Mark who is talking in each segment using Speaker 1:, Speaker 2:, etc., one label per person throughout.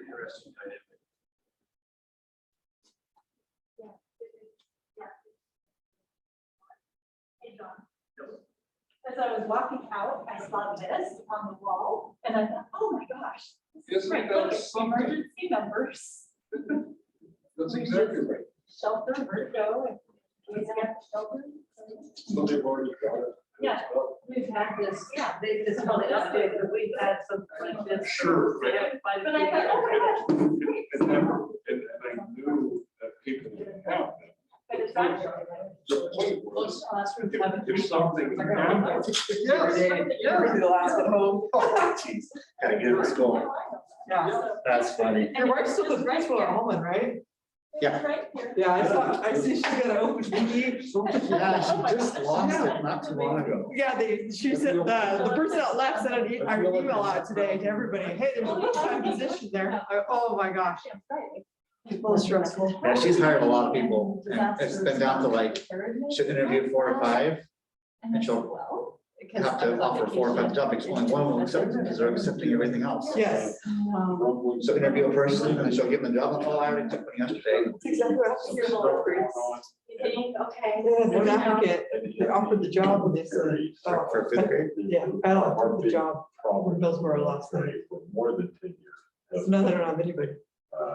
Speaker 1: interesting dynamic.
Speaker 2: Hey, John.
Speaker 1: Yes.
Speaker 2: As I was walking out, I saw this on the wall and I thought, oh my gosh. this is
Speaker 1: Isn't
Speaker 2: great.
Speaker 1: that
Speaker 2: Look, it's
Speaker 1: something?
Speaker 2: Emergency numbers,
Speaker 1: That's exactly right.
Speaker 2: shelter, Virgo, and we have shelter.
Speaker 1: Somebody already got it.
Speaker 2: Yeah.
Speaker 3: We've had this, yeah, they just called it update, but we've had some like this.
Speaker 1: Sure, right.
Speaker 3: By
Speaker 2: But I thought, oh my gosh. this is great.
Speaker 1: And never, and, and I knew that people didn't have that.
Speaker 2: But it's not.
Speaker 1: The point was,
Speaker 3: Most oh, classrooms
Speaker 1: if,
Speaker 3: haven't.
Speaker 1: if something
Speaker 3: They're gonna look like
Speaker 1: happened.
Speaker 3: this every
Speaker 1: Yes,
Speaker 3: day.
Speaker 1: yes.
Speaker 3: Every last at home.
Speaker 4: Gotta get this going.
Speaker 3: Yeah.
Speaker 4: That's funny.
Speaker 3: Your wife's still a principal at home, right?
Speaker 4: Yeah.
Speaker 2: Right here.
Speaker 5: Yeah, I saw, I see she got an open meeting.
Speaker 4: Yeah, she just lost it not too long ago.
Speaker 5: Yeah, they, she said, the, the person that left sent an e- our email out today to everybody, hey, there's a full-time position there. I- Oh, my gosh.
Speaker 3: People stressful.
Speaker 4: Yeah, she's hired a lot of people and it's been down to like, she'll interview four or five. And she'll
Speaker 2: "Oh,
Speaker 4: have to offer four or five topics, only one will accept it because they're accepting everything else.
Speaker 5: Yes.
Speaker 4: So interview a person and then she'll give them the job. Oh, I already took one yesterday.
Speaker 2: You think, okay.
Speaker 5: The applicant, they offered the job and they said,
Speaker 4: For for fifth grade.
Speaker 5: yeah, I don't want the job.
Speaker 6: Probably.
Speaker 5: Billsboro last night.
Speaker 6: For More than ten years.
Speaker 5: It's nothing on anybody.
Speaker 6: Uh,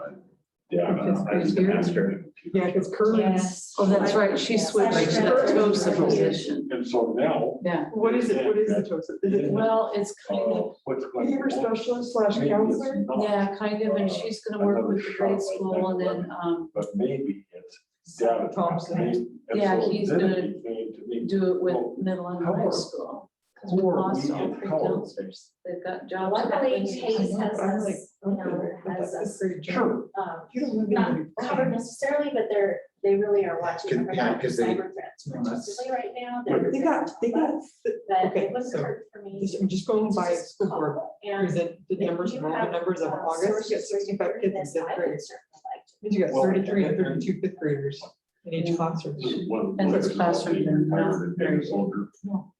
Speaker 6: Yeah. I
Speaker 3: It's
Speaker 6: don't know, I just
Speaker 3: crazy.
Speaker 6: asked her.
Speaker 5: Yeah, because Curlin's,
Speaker 3: Oh, that's right, she switched to the TOSA position.
Speaker 6: And so now.
Speaker 3: Yeah,
Speaker 5: what is it? What is the TOSA? Is it
Speaker 3: well, it's kind
Speaker 6: uh,
Speaker 3: of,
Speaker 6: What's.
Speaker 5: behavior specialist slash
Speaker 6: Maybe it's
Speaker 5: counselor?
Speaker 6: not,
Speaker 3: yeah, kind of, and she's gonna work with the grade school and then, um,
Speaker 6: But maybe it's data.
Speaker 5: Thompson.
Speaker 6: And
Speaker 3: Yeah,
Speaker 6: so
Speaker 3: he's
Speaker 6: then
Speaker 3: gonna
Speaker 6: it became to me,
Speaker 3: do it with middle and high school. Cause we
Speaker 6: Who are
Speaker 3: lost
Speaker 6: we
Speaker 3: all
Speaker 6: in
Speaker 3: three
Speaker 6: power?
Speaker 3: counselors. They've got jobs.
Speaker 7: Luckily, Chase has
Speaker 5: I'm like,
Speaker 7: us, you
Speaker 5: okay,
Speaker 7: know,
Speaker 5: but
Speaker 7: has
Speaker 5: that's
Speaker 7: us,
Speaker 5: a great job.
Speaker 6: Sure,
Speaker 7: um,
Speaker 5: You don't have
Speaker 7: not
Speaker 5: anybody.
Speaker 7: covered necessarily, but they're, they really are watching.
Speaker 4: Can-
Speaker 7: over
Speaker 4: yeah,
Speaker 7: that
Speaker 4: 'cause they-
Speaker 7: cyber threats,
Speaker 4: Well, that's-
Speaker 7: particularly Right now.
Speaker 6: Right.
Speaker 5: They got, they got,
Speaker 7: But
Speaker 5: okay,
Speaker 7: it was
Speaker 5: so
Speaker 7: hard for me.
Speaker 5: this- I'm just going
Speaker 7: to
Speaker 5: by
Speaker 7: just
Speaker 5: school
Speaker 7: call
Speaker 5: board.
Speaker 7: And.
Speaker 5: Here's the,
Speaker 7: if
Speaker 5: the numbers,
Speaker 7: you
Speaker 5: enrollment
Speaker 7: have,
Speaker 5: numbers of
Speaker 7: uh,
Speaker 5: August, you got
Speaker 7: sources for
Speaker 5: sixty-five
Speaker 7: your
Speaker 5: kids in
Speaker 7: business,
Speaker 5: fifth
Speaker 7: I would
Speaker 5: grade.
Speaker 7: certainly like to-
Speaker 5: Means you got
Speaker 6: Well,
Speaker 5: thirty-three and
Speaker 6: and-
Speaker 5: thirty-two fifth graders in each
Speaker 3: Yeah.
Speaker 5: classroom.
Speaker 6: this is one. of the
Speaker 3: And it's
Speaker 6: places
Speaker 3: classroom,
Speaker 6: I'm
Speaker 3: not
Speaker 6: tired of
Speaker 3: very
Speaker 6: being older.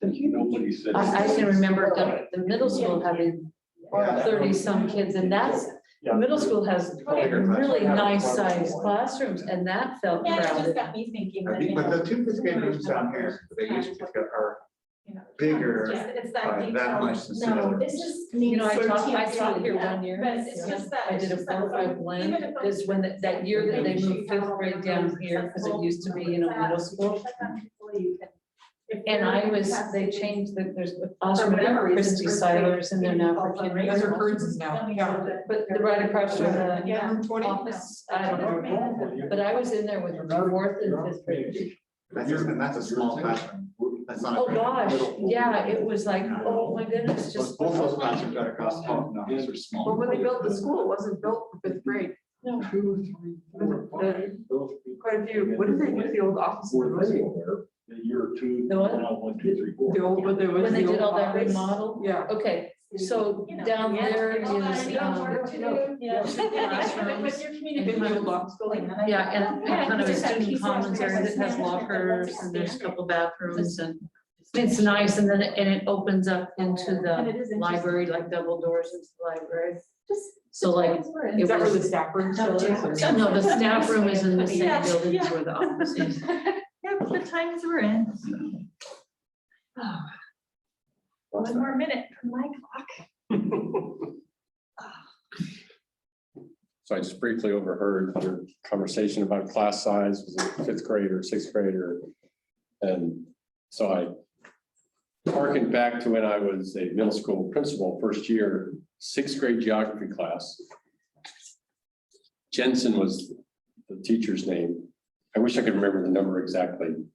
Speaker 5: They're huge.
Speaker 6: Nobody said.
Speaker 3: I, I can remember the, the middle school having
Speaker 4: Yeah.
Speaker 3: thirty-some kids, and that's,
Speaker 6: Yeah.
Speaker 3: middle school has really nice-sized classrooms, and that felt
Speaker 2: Yeah, it just
Speaker 3: crowded.
Speaker 2: got me thinking.
Speaker 4: I
Speaker 2: that,
Speaker 4: think,
Speaker 2: you
Speaker 4: but
Speaker 2: know,
Speaker 4: the two fifth grade rooms down here, they used to get are
Speaker 2: you know,
Speaker 4: bigger
Speaker 2: It's it's that
Speaker 4: by that
Speaker 2: detail.
Speaker 4: much. than the
Speaker 7: No,
Speaker 4: other.
Speaker 7: it's just.
Speaker 3: You know, I
Speaker 7: needs
Speaker 3: taught,
Speaker 7: to
Speaker 3: I
Speaker 7: be
Speaker 3: taught here
Speaker 7: done.
Speaker 3: one year.
Speaker 2: But it's
Speaker 3: yeah.
Speaker 2: just that.
Speaker 3: I
Speaker 2: it's
Speaker 3: did a
Speaker 2: just that
Speaker 3: four-five
Speaker 2: fun. Even
Speaker 3: blend,
Speaker 2: if it
Speaker 3: is when, that- that year that they moved fifth grade down here, because it used to be, you know, middle school. And I was, they changed the, there's the classroom,
Speaker 2: whatever reason,
Speaker 3: Christie
Speaker 2: first grade,
Speaker 3: Silers, and they're now for
Speaker 2: they
Speaker 3: kindergarten.
Speaker 5: Those are Kearns now, yeah.
Speaker 3: But the right across from the
Speaker 2: Yeah.
Speaker 5: Room twenty.
Speaker 3: office, I don't know, but I was in there with fourth and fifth grade.
Speaker 4: That's, a- and that's a small classroom. That's not. a
Speaker 3: Oh,
Speaker 4: great-
Speaker 3: gosh, yeah, it was like, oh my goodness,
Speaker 4: Both
Speaker 3: just.
Speaker 4: both those classrooms got across the hall. No, these are small.
Speaker 5: Well, when they built the school, it wasn't built for fifth grade.
Speaker 6: Two, three, four, five, those people.
Speaker 5: Quite a few, what did they do, the old office?
Speaker 6: Were
Speaker 5: was it?
Speaker 6: the year or two,
Speaker 3: The what?
Speaker 6: now one, two, three, four.
Speaker 5: The old, what there was.
Speaker 3: When they
Speaker 5: the
Speaker 3: did
Speaker 5: old
Speaker 3: all that
Speaker 5: office.
Speaker 3: remodel,
Speaker 5: Yeah.
Speaker 3: okay, so down there is, um,
Speaker 2: With your community.
Speaker 3: yeah, and and kind of a student commons area that has lockers,
Speaker 2: Yeah.
Speaker 3: and there's a couple bathrooms, and it's nice, and then, it- and it opens up into the library, like double doors into the library. So like,
Speaker 5: Is
Speaker 3: it
Speaker 5: that where the
Speaker 3: was,
Speaker 5: staff room still is? or-
Speaker 3: no, the staff room is in the same
Speaker 2: Yeah.
Speaker 3: building as where the office is.
Speaker 2: Yeah, but the times we're in. One more minute from my clock.
Speaker 8: So I just briefly overheard your conversation about class size, was it fifth grade or sixth grade or? And so I harkened back to when I was a middle school principal, first year, sixth grade geography class. Jensen was the teacher's name. I wish I could remember the number exactly.